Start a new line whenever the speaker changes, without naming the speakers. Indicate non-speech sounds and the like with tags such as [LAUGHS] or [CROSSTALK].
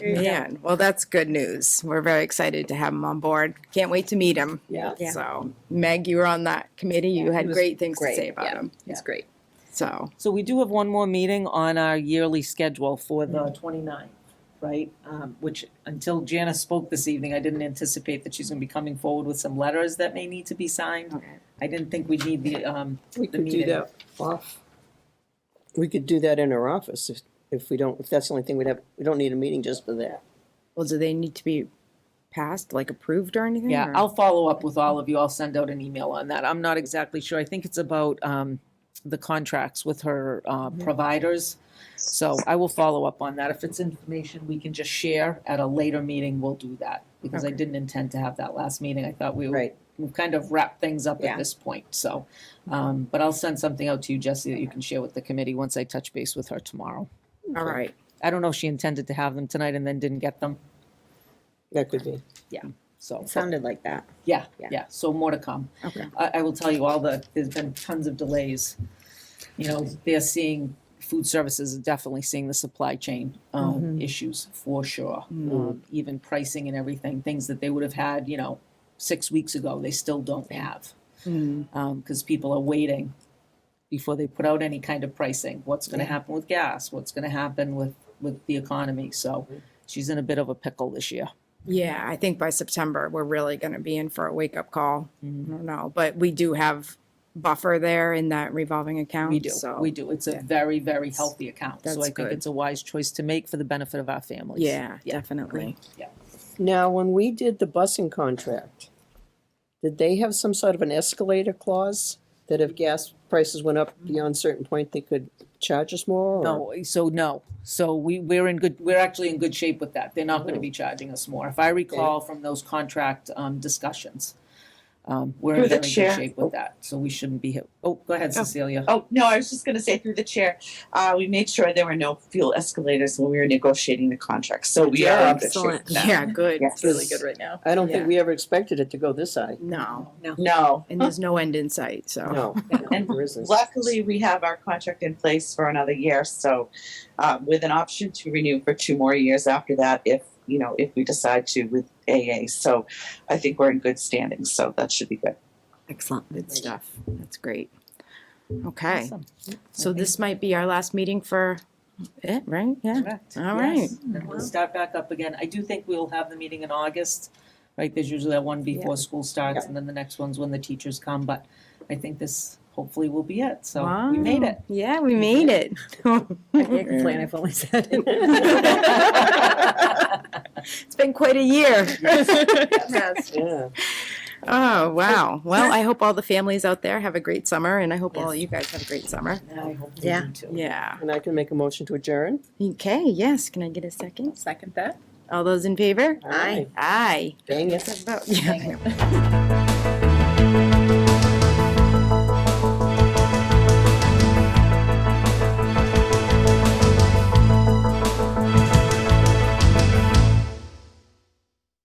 Man, well, that's good news. We're very excited to have him on board. Can't wait to meet him.
Yeah.
Yeah.
So Meg, you were on that committee. You
he
had
was
great things to
great,
say about
yeah.
him.
It's great.
So,
So we do have one more meeting on our yearly schedule for the
Mm-hmm.
29th, right? Um, Which, until Janice spoke this evening, I didn't anticipate that she's going to be coming forward with some letters that may need to be signed.
okay.
I didn't think we'd need the, um,
We
the
could do
meeting.
that off. We could do that in our office if, if we don't, if that's the only thing we'd have, we don't need a meeting just for that.
well, do they need to be passed, like approved or anything?
Yeah,
or-
I'll follow up with all of you. I'll send out an email on that. I'm not exactly sure. I think it's about um, the contracts with her uh, providers. So I will follow up on that. If it's information we can just share at a later meeting, we'll do that. Because I
Okay.
didn't intend to have that last meeting. I thought we were,
Right.
we've kind of wrapped things up
Yeah.
at this point, so. um, But I'll send something out to you, Jesse, that you can share with the committee once I touch base with her tomorrow.
All right.
I don't know if she intended to have them tonight and then didn't get them,
That could be.
so.
It sounded like that.
Yeah,
Yeah.
yeah, so more to come.
Okay.
I, I will tell you all the, there's been tons of delays. You know, they're seeing, food services are definitely seeing the supply chain, um, issues for sure. Um, Even pricing and everything, things that they would have had, you know, six weeks ago, they still don't have.
Mm.
Um, cause people are waiting before they put out any kind of pricing. What's gonna happen with gas? What's gonna happen with, with the economy? So she's in a bit of a pickle this year.
Yeah, I think by September, we're really going to be in for a wake up call.
Mm-hmm.
I don't know, but we do have buffer there in that revolving account.
We do,
So,
we do. It's a
yeah.
very, very healthy account. So
That's
I think
good.
it's a wise choice to make for the benefit of our families.
yeah, definitely.
Now, when we did the busing contract, did they have some sort of an escalator clause that if gas prices went up beyond a certain point, they could charge us more? or-
No, so no. So we, we're in good, we're actually in good shape with that. They're not going to be
Oh.
charging us more. If I recall from those contract um, discussions, um, we're in
Through the
very good
chair.
shape
Oh.
with that. So we shouldn't be hit. Oh, go ahead, Cecilia.
Oh, no, I was just gonna say through the chair, uh, we made sure there were no fuel escalators when we were negotiating the contract, so we are in good shape
Excellent.
now.
Yeah, good.
Yes.
right now.
I don't think
Yeah.
we ever expected it to go this high.
No,
No,
and there's no end in sight. So,
No,
and
there isn't.
luckily, we have our contract in place for another year, so, uh, with an option to renew for two more years after that if, you know, if we decide to with AA, so I think we're in good standing, so that should be good.
Excellent.
good stuff. That's great. Okay.
Awesome.
So this might be our last meeting for it, right? Yeah.
Correct.
All right.
And we'll start back up again. I do think we'll have the meeting in August, right? There's usually that one before school starts and then the next one's when the teachers come, but I think this hopefully will be it. So we made
Wow.
it.
Yeah, we made it.
I can't complain. I've only said it.
Thank
[LAUGHS] It's been quite a year.
Yeah.
[LAUGHS] Oh, wow. Well, I hope all the families out there have a great summer and I hope all you guys have a great summer.
Yeah.
Yeah.
And I can make a motion to adjourn?
Okay, yes. Can I get a second?
Second that.
All those in favor?
All right.
Aye.
Dang it.
Vote. Yeah.